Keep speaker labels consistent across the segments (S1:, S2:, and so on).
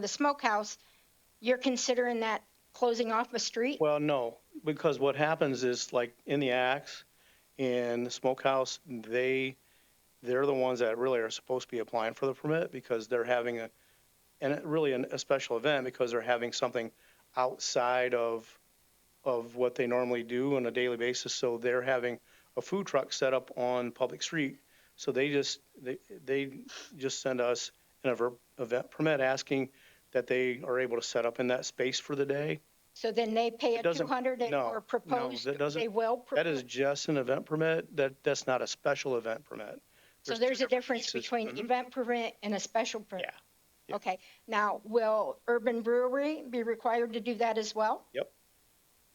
S1: the smokehouse, you're considering that closing off a street?
S2: Well, no, because what happens is like in the Axe and the Smokehouse, they, they're the ones that really are supposed to be applying for the permit because they're having a, and it really an- a special event because they're having something outside of, of what they normally do on a daily basis. So they're having a food truck set up on public street. So they just, they, they just send us an ever- event permit asking that they are able to set up in that space for the day.
S1: So then they pay a
S2: It doesn't-
S1: 200 and-
S2: no,
S1: or
S2: no,
S1: proposed,
S2: that doesn't-
S1: they will.
S2: That is
S1: propose.
S2: just an event permit. That, that's not a special event permit.
S1: So
S2: two
S1: there's a
S2: different
S1: difference
S2: pieces.
S1: between
S2: Mhm.
S1: event permit and a special permit?
S2: yeah.
S1: Okay, now, will Urban Brewery be required to do that as well?
S2: Yep.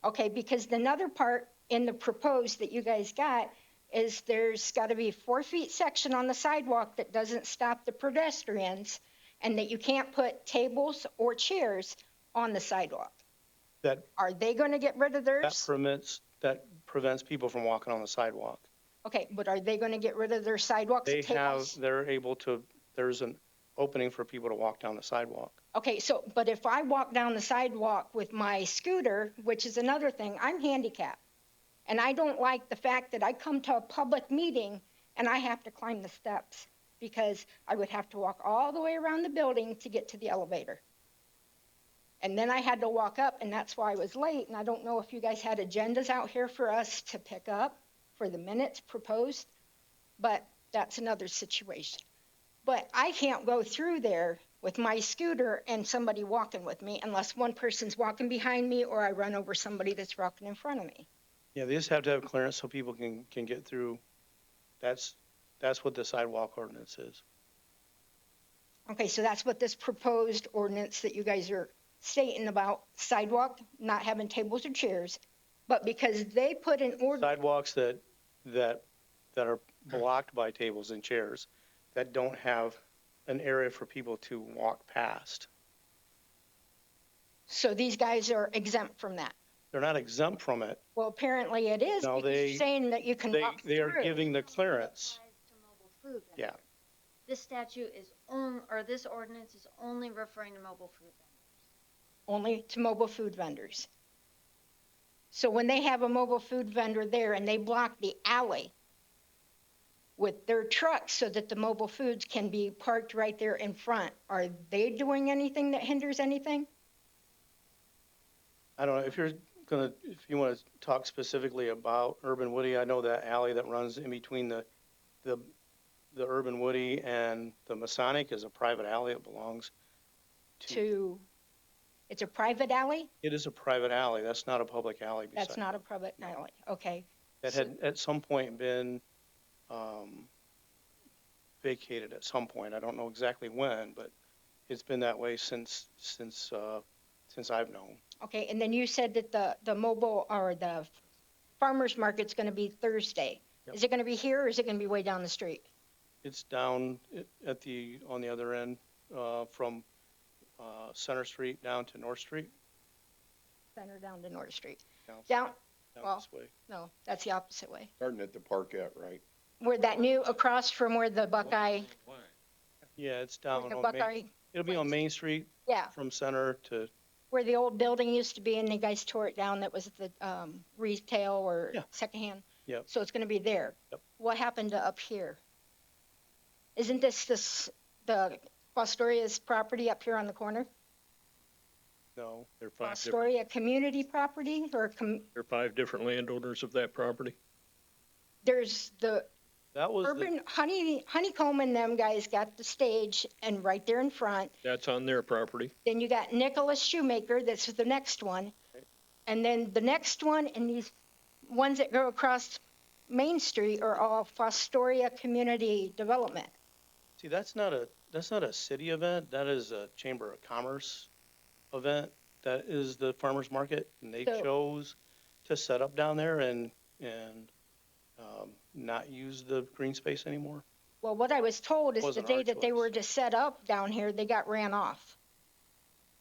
S1: Okay, because another part in the proposed that you guys got is there's got to be four feet section on the sidewalk that doesn't stop the pedestrians and that you can't put tables or chairs on the sidewalk.
S2: That,
S1: Are they going to get rid of
S2: that
S1: theirs?
S2: permits, that prevents people from walking on the sidewalk.
S1: Okay, but are they going to get rid of their sidewalks
S2: They
S1: and
S2: have,
S1: tables?
S2: they're able to, there's an opening for people to walk down the sidewalk.
S1: Okay, so, but if I walk down the sidewalk with my scooter, which is another thing, I'm handicapped. And I don't like the fact that I come to a public meeting and I have to climb the steps because I would have to walk all the way around the building to get to the elevator. And then I had to walk up and that's why I was late. And I don't know if you guys had agendas out here for us to pick up for the minutes proposed, but that's another situation. But I can't go through there with my scooter and somebody walking with me unless one person's walking behind me or I run over somebody that's walking in front of me.
S2: Yeah, they just have to have clearance so people can, can get through. That's, that's what the sidewalk ordinance is.
S1: Okay, so that's what this proposed ordinance that you guys are stating about sidewalk, not having tables or chairs. But because they put an ordinance,
S2: Sidewalks that, that, that are blocked by tables and chairs, that don't have an area for people to walk past.
S1: so these guys are exempt from that.
S2: They're not exempt from it.
S1: Well, apparently it is
S2: No,
S1: because you're
S2: they-
S1: saying that you can
S2: They,
S1: walk
S2: they are
S1: through.
S2: giving the clearance.
S3: applies to mobile food vendors.
S2: Yeah.
S3: This statute is on, or this ordinance is only referring to mobile food vendors.
S1: only to mobile food vendors. So when they have a mobile food vendor there and they block the alley with their trucks so that the mobile foods can be parked right there in front, are they doing anything that hinders anything?
S2: I don't know, if you're gonna, if you wanna talk specifically about Urban Woody, I know that alley that runs in between the, the, the Urban Woody and the Masonic is a private alley, it belongs to,
S1: To, it's a private alley?
S2: it is a private alley, that's not a public alley.
S1: That's
S2: beside-
S1: not a private alley, okay.
S2: That had at some point been, um, vacated at some point, I don't know exactly when, but it's been that way since, since, uh, since I've known.
S1: Okay, and then you said that the, the mobile or the farmer's market's gonna be Thursday.
S2: Yep.
S1: Is it gonna be here or is it gonna be way down the street?
S2: It's down at- at the, on the other end, uh, from, uh, Center Street down to North Street,
S1: Center down to North Street?
S2: down,
S1: Down,
S2: down
S1: well.
S2: this way.
S1: No, that's the opposite way.
S4: Starting at the parkette, right?
S1: Where that new, across from where the Buckeye,
S2: Yeah, it's
S1: where
S2: down
S1: the
S2: on Main,
S1: Buckeye,
S2: it'll be on Main Street
S1: yeah,
S2: from Center to,
S1: where the old building used to be and the guys tore it down that was the um, retail or
S2: Yeah.
S1: secondhand.
S2: Yep.
S1: So it's gonna be there.
S2: Yep.
S1: What happened to up here? Isn't this this, the Fosteria's property up here on the corner?
S2: no,
S5: There are five different,
S1: Fosteria community property or com,
S5: there are five different landowners of that property.
S1: there's the
S2: that was the,
S1: urban, honey, honeycomb and them guys got the stage and right there in front.
S5: That's on their property.
S1: Then you got Nicholas Shoemaker, that's the next one. And then the next one and these ones that go across Main Street are all Fostoria Community Development.
S2: see, that's not a, that's not a city event, that is a Chamber of Commerce event. That is the farmer's market, and they
S1: So-
S2: chose to set up down there and, and, um, not use the green space anymore.
S1: Well, what I was told is the
S2: Wasn't our
S1: day that they
S2: choice.
S1: were to set up down here, they got ran off.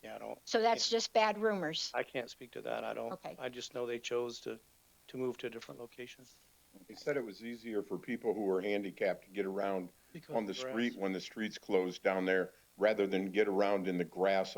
S2: Yeah, I don't,
S1: So that's just bad rumors.
S2: I can't speak to that. I don't,
S1: Okay.
S2: I just know they chose to, to move to a different location.
S4: They said it was easier for people who were handicapped to get around on the street when the street's closed down there rather than get around in the grass